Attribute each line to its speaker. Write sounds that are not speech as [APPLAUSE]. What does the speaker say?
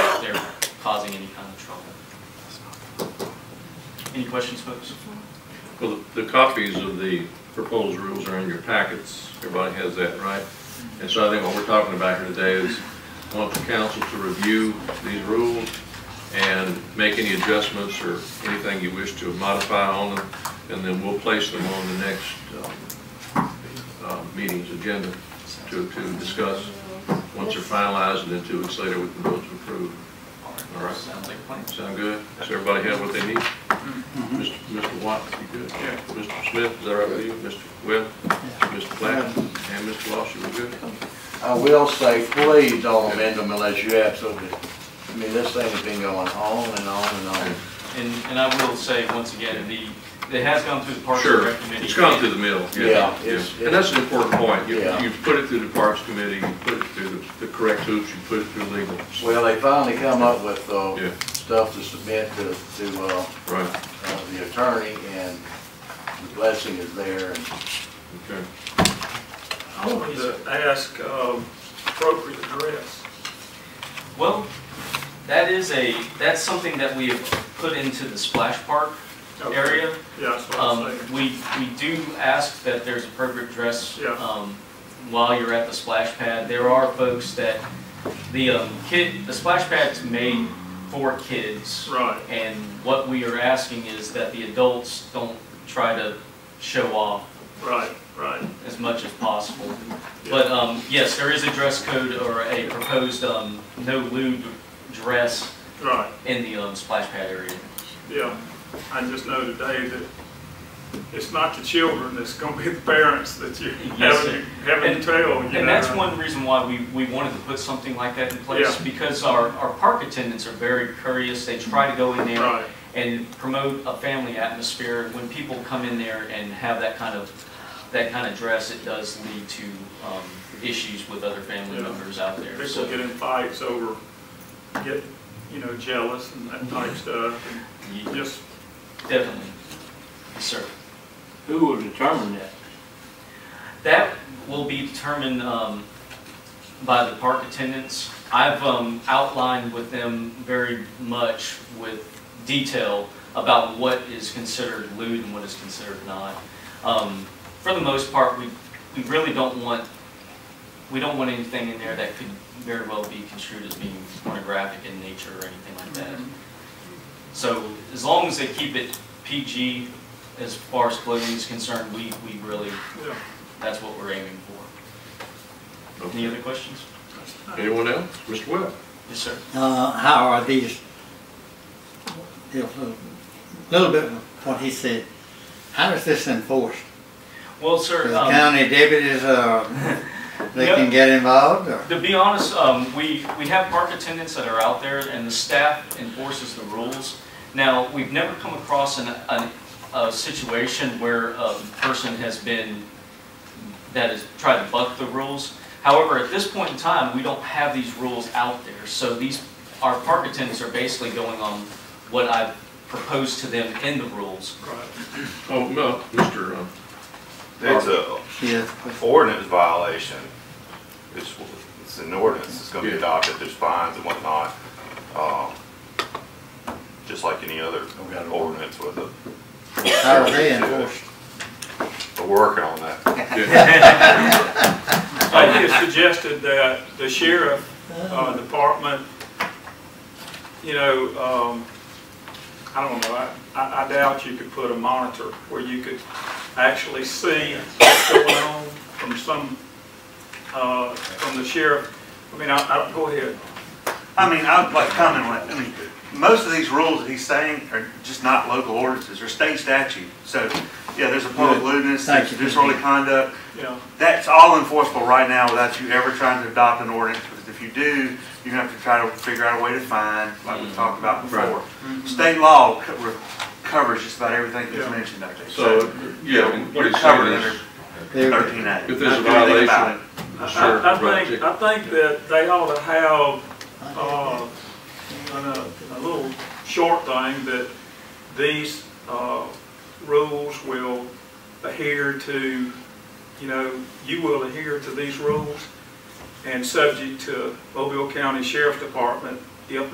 Speaker 1: causing any kind of trouble. Any questions, folks?
Speaker 2: Well, the the copies of the proposed rules are in your packets. Everybody has that, right? And so I think what we're talking about here today is I want the council to review these rules and make any adjustments or anything you wish to modify on them, and then we'll place them on the next um, uh, meeting's agenda to, to discuss. Once they're finalized, and then two weeks later, we can vote to approve. All right.
Speaker 1: Sounds like a plan.
Speaker 2: Sound good? Does everybody have what they need? Mr. Mr. Watt, you good?
Speaker 1: Mm-hmm. Yeah.
Speaker 2: Mr. Smith, is that right with you? Mr. Webb, Mr. Platt, and Mr. Losh, you were good?
Speaker 3: I will say, please don't amend them unless you absolutely, I mean, this thing has been going on and on and on.
Speaker 1: And, and I will say, once again, the, it has gone through the Parks and
Speaker 2: Sure,
Speaker 1: Rec Committee.
Speaker 2: it's gone through the mill.
Speaker 3: Yeah, it's-
Speaker 2: And that's an important point. You,
Speaker 3: Yeah.
Speaker 2: you put it through the Parks Committee, you put it through the- the correct hoops, you put it through legal.
Speaker 3: Well, they finally come up with, uh,
Speaker 2: Yeah.
Speaker 3: stuff to submit to, to, uh,
Speaker 2: Right,
Speaker 3: uh, the attorney, and the blessing is there, and
Speaker 2: okay.
Speaker 4: I wanted to ask um, appropriate address.
Speaker 1: Well, that is a, that's something that we have put into the splash park
Speaker 4: Okay.
Speaker 1: area.
Speaker 4: Yeah, that's what
Speaker 1: Um,
Speaker 4: I'm saying.
Speaker 1: we, we do ask that there's appropriate dress,
Speaker 4: Yeah.
Speaker 1: um, while you're at the splash pad. There are folks that, the, um, kid, the splash pad's made for kids.
Speaker 4: Right,
Speaker 1: And what we are asking is that the adults don't try to show off
Speaker 4: right, right.
Speaker 1: as much as possible. But, um, yes, there is a dress code or a proposed, um, no lewd dress
Speaker 4: Right,
Speaker 1: in the, um, splash pad area.
Speaker 4: yeah. I just know today that it's not the children, it's going to be the parents that you
Speaker 1: Yes, sir.
Speaker 4: having, having
Speaker 1: And-
Speaker 4: to tell, you know.
Speaker 1: And that's one reason why we, we wanted to put something like that in place,
Speaker 4: Yeah.
Speaker 1: because our, our park attendants are very curious, they try to go in there
Speaker 4: Right,
Speaker 1: and promote a family atmosphere. When people come in there and have that kind of, that kind of dress, it does lead to, um, issues with other family
Speaker 4: Yeah.
Speaker 1: members out there,
Speaker 4: people
Speaker 1: so.
Speaker 4: get in fights over, get, you know, jealous and that type stuff.
Speaker 1: ye-
Speaker 4: and Just,
Speaker 1: Definitely, yes, sir.
Speaker 5: Who will determine that?
Speaker 1: That will be determined um, by the park attendants. I've um, outlined with them very much with detail about what is considered lewd and what is considered not. Um, For the most part, we, we really don't want, we don't want anything in there that could very well be construed as being pornographic in nature or anything like that. So as long as they keep it PG as far as clothing is concerned, we, we really
Speaker 4: yeah.
Speaker 1: that's what we're aiming for. Any
Speaker 2: Okay.
Speaker 1: other questions?
Speaker 2: Anyone else? Mr. Webb?
Speaker 1: Yes, sir.
Speaker 6: Uh, how are these, a little bit of what he said, how is this enforced?
Speaker 1: Well,
Speaker 6: Does
Speaker 1: sir,
Speaker 6: the
Speaker 1: um,
Speaker 6: county deputies, uh, they
Speaker 1: Yep.
Speaker 6: can get involved, or?
Speaker 1: to be honest, um, we, we have park attendants that are out there and the staff enforces the rules. Now, we've never come across an, an, a situation where a person has been, that has tried to buck the rules. However, at this point in time, we don't have these rules out there. So these, our park attendants are basically going on what I've proposed to them in the rules.
Speaker 4: Right.
Speaker 2: Oh, no,
Speaker 1: [LAUGHS]
Speaker 2: Mr. um,
Speaker 7: It's a
Speaker 6: Yes.
Speaker 7: ordinance violation. It's, it's an ordinance, it's gonna be
Speaker 2: Yeah.
Speaker 7: adopted, there's fines and whatnot. Um, Just like any other
Speaker 3: we got it.
Speaker 7: ordinance with a.
Speaker 6: How are they enforced?
Speaker 7: We're working on that.
Speaker 2: yeah.
Speaker 4: I just suggested that the sheriff uh, department, you know, um, I don't know, I- I I doubt you could put a monitor where you could actually see what's going on from some, uh, from the sheriff. I mean, I, I, go ahead.
Speaker 8: I mean, I'd like to comment on that. I mean, most of these rules that he's saying are just not local ordinances, they're state statute. So, yeah, there's a public lewdness,
Speaker 6: Thank
Speaker 8: there's
Speaker 6: you.
Speaker 8: disorderly conduct.
Speaker 4: you know.
Speaker 8: That's all enforceable right now without you ever trying to adopt an ordinance, because if you do, you're gonna have to try to figure out a way to fine, like we talked about
Speaker 2: Mm-hmm.
Speaker 8: before. State law co- re- covers just about everything that's
Speaker 4: Yeah.
Speaker 8: mentioned out there.
Speaker 2: So, yeah, what
Speaker 8: You're
Speaker 2: he's
Speaker 8: covered
Speaker 2: saying
Speaker 8: under
Speaker 2: is,
Speaker 6: They're-
Speaker 8: thirteen A.
Speaker 2: if there's a violation, the sheriff,
Speaker 4: I- I
Speaker 2: right,
Speaker 4: think, I think that they ought to have,
Speaker 1: Um,
Speaker 4: uh, a, a little short thing that these, uh, rules will adhere to, you know, you will adhere to these rules and subject to Mobile County Sheriff Department if